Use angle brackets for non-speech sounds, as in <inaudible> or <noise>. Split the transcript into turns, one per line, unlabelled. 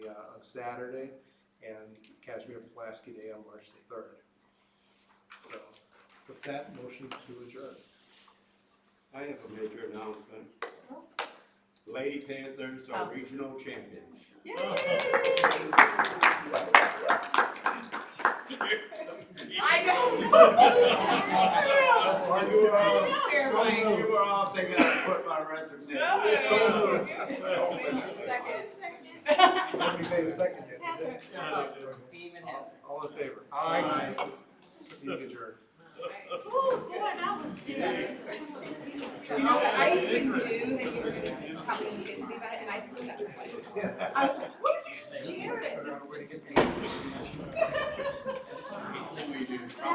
uh, on Saturday and Kashmir Pulaski Day on March the third. So with that, motion to adjourn.
I have a major announcement. Lady Panthers are regional champions.
<laughs> <laughs> I
You were all,
Fair
so you were all thinking I put my resignation.
So
know.
Nobody made a second yet, did they?
Steve and Heather.
All in favor? Aye. Meeting adjourned.
Ooh, four hours, you know, I even knew that you were gonna probably get me that, and I still got one.
<laughs>
I was like, what is this, Jared?
Figure out a way to get-